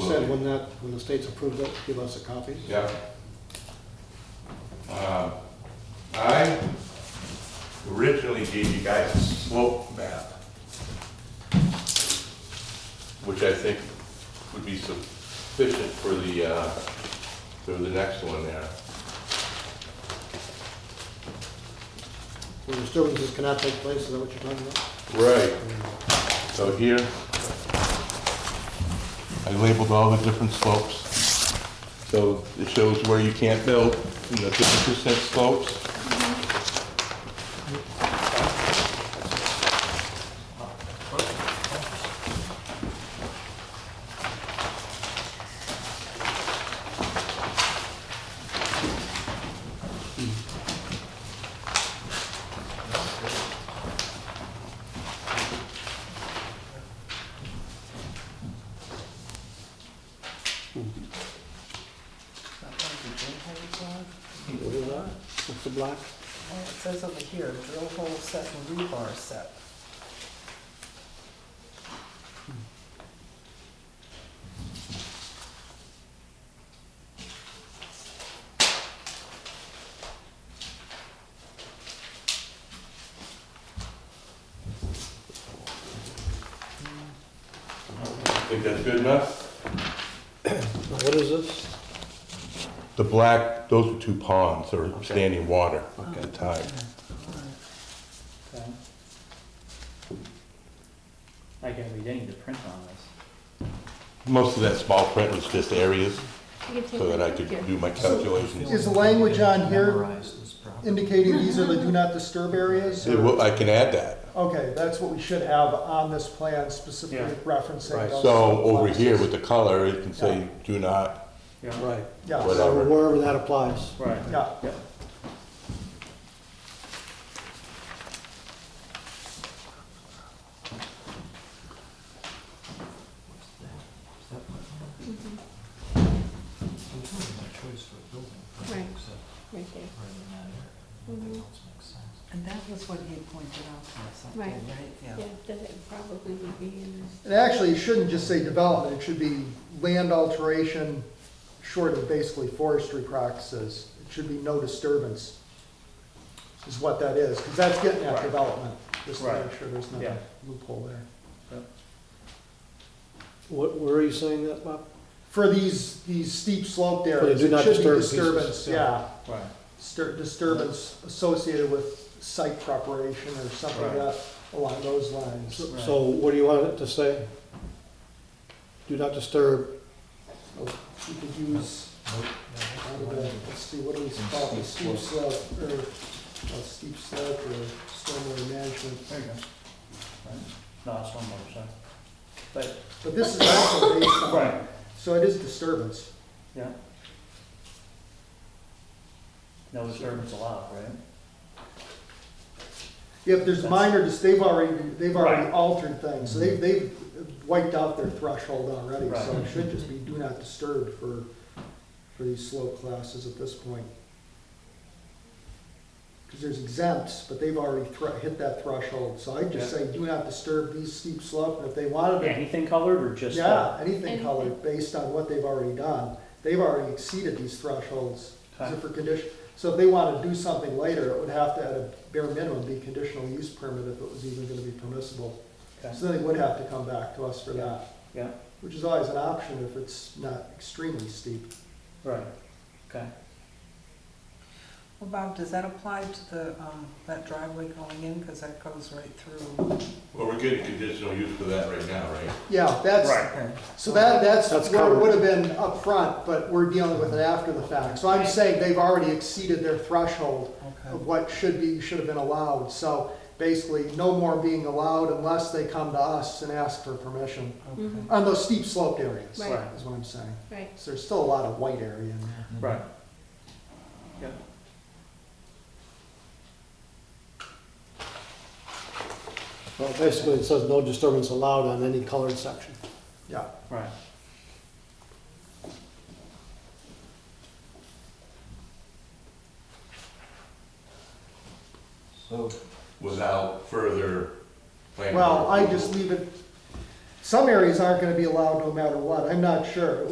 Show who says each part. Speaker 1: said,
Speaker 2: absolutely.
Speaker 1: when that, when the state's approved it, give us a copy.
Speaker 2: Yeah. Um, I originally gave you guys a slope map, which I think would be sufficient for the, uh, for the next one there.
Speaker 1: Where disturbances cannot take place, is that what you're talking about?
Speaker 2: Right. So here, I labeled all the different slopes. So it shows where you can't build, you know, fifty percent slopes.
Speaker 1: What is that? What's the block?
Speaker 3: Well, it says over here, drill hole set and rebar set.
Speaker 2: Think that's good enough?
Speaker 1: What is this?
Speaker 2: The black, those were two ponds, or standing water at the time.
Speaker 3: Okay.
Speaker 4: I can read any of the print on this.
Speaker 2: Most of that small print was just areas,
Speaker 5: You can take
Speaker 2: so that I could
Speaker 5: picture.
Speaker 2: do my calculations.
Speaker 6: Is the language on here indicating these are the do not disturb areas?
Speaker 2: It will- I can add that.
Speaker 6: Okay, that's what we should have on this plan specifically referencing. those
Speaker 2: So over here
Speaker 6: boxes.
Speaker 2: with the color, it can say, do not,
Speaker 4: Yeah.
Speaker 1: Right.
Speaker 6: Yeah,
Speaker 2: Whatever.
Speaker 1: So Wherever that applies.
Speaker 4: Right.
Speaker 6: yeah.
Speaker 4: Yep.
Speaker 5: Right. Right there. Mhm.
Speaker 3: And that was what he had pointed out to us, I
Speaker 5: Right.
Speaker 3: think, right?
Speaker 5: Yeah, that it probably would be in
Speaker 6: And actually, it shouldn't just say development, it should be land alteration short of basically forestry practices. It should be no disturbance is what that is, because that's getting at
Speaker 4: Right.
Speaker 6: development, just to
Speaker 4: Right.
Speaker 6: make sure there's not
Speaker 4: Yeah.
Speaker 6: a loophole there.
Speaker 1: What, where are you saying that, Bob?
Speaker 6: For these, these steep sloped areas,
Speaker 1: do
Speaker 6: it
Speaker 1: not
Speaker 6: should be
Speaker 1: disturb pieces,
Speaker 6: disturbance,
Speaker 1: yeah.
Speaker 6: yeah.
Speaker 4: Right.
Speaker 6: distur- disturbance associated with site preparation or something like
Speaker 4: Right.
Speaker 6: that, along those lines.
Speaker 1: So- So what do you want it to say? Do not disturb,
Speaker 6: We Oh, could use, out of the- let's see, what do we call it, steep slope, or, uh, steep slope or stormwater management.
Speaker 4: There you go. Right. No, that's one more, sorry. But,
Speaker 6: But this is also based on,
Speaker 4: right,
Speaker 6: so it is disturbance.
Speaker 4: yeah. No disturbance allowed, right?
Speaker 6: If there's minor, dis- they've already, they've already
Speaker 4: Right. Mm-hmm.
Speaker 6: altered things, so they've, they've wiped out their threshold already, so
Speaker 4: Right.
Speaker 6: it should just be do not disturb for, for these slope classes at this point. Because there's exempts, but they've already thre- hit that threshold, so I'd just
Speaker 4: Yeah.
Speaker 6: say do not disturb these steep slope, and if they wanted to,
Speaker 4: Anything colored or just? uh,
Speaker 6: yeah, anything colored, based on what they've already done, they've already exceeded these thresholds. Is it for condition, so if they want to do something later, it would have to, at a bare minimum, be conditional use permit if it was even going to be permissible.
Speaker 4: okay,
Speaker 6: So then they would have to come back to us for that,
Speaker 4: Yeah,
Speaker 6: which is always an option if it's not extremely steep.
Speaker 4: right, okay.
Speaker 3: Well, Bob, does that apply to the, um, that driveway going in, because that goes right through?
Speaker 2: well, we're getting conditional use for that right now, right?
Speaker 6: Yeah, that's,
Speaker 3: Okay.
Speaker 6: so that, that's
Speaker 1: That's
Speaker 6: where it
Speaker 1: covered.
Speaker 6: would have been up front, but we're dealing with it after the fact. So I'm saying they've already exceeded their threshold of
Speaker 3: Okay,
Speaker 6: what should be, should have been allowed. So basically, no more being allowed unless they come to us and ask for permission
Speaker 3: okay.
Speaker 6: on those steep sloped areas,
Speaker 5: Right.
Speaker 6: is what I'm saying.
Speaker 5: Right.
Speaker 6: So there's still a lot of white area in there.
Speaker 4: Right.
Speaker 1: well, basically it says no disturbance allowed on any colored section.
Speaker 6: Yeah.
Speaker 4: Right.
Speaker 2: Without further planning.
Speaker 6: Well, I just leave it, Some areas aren't gonna be allowed no matter what, I'm not sure.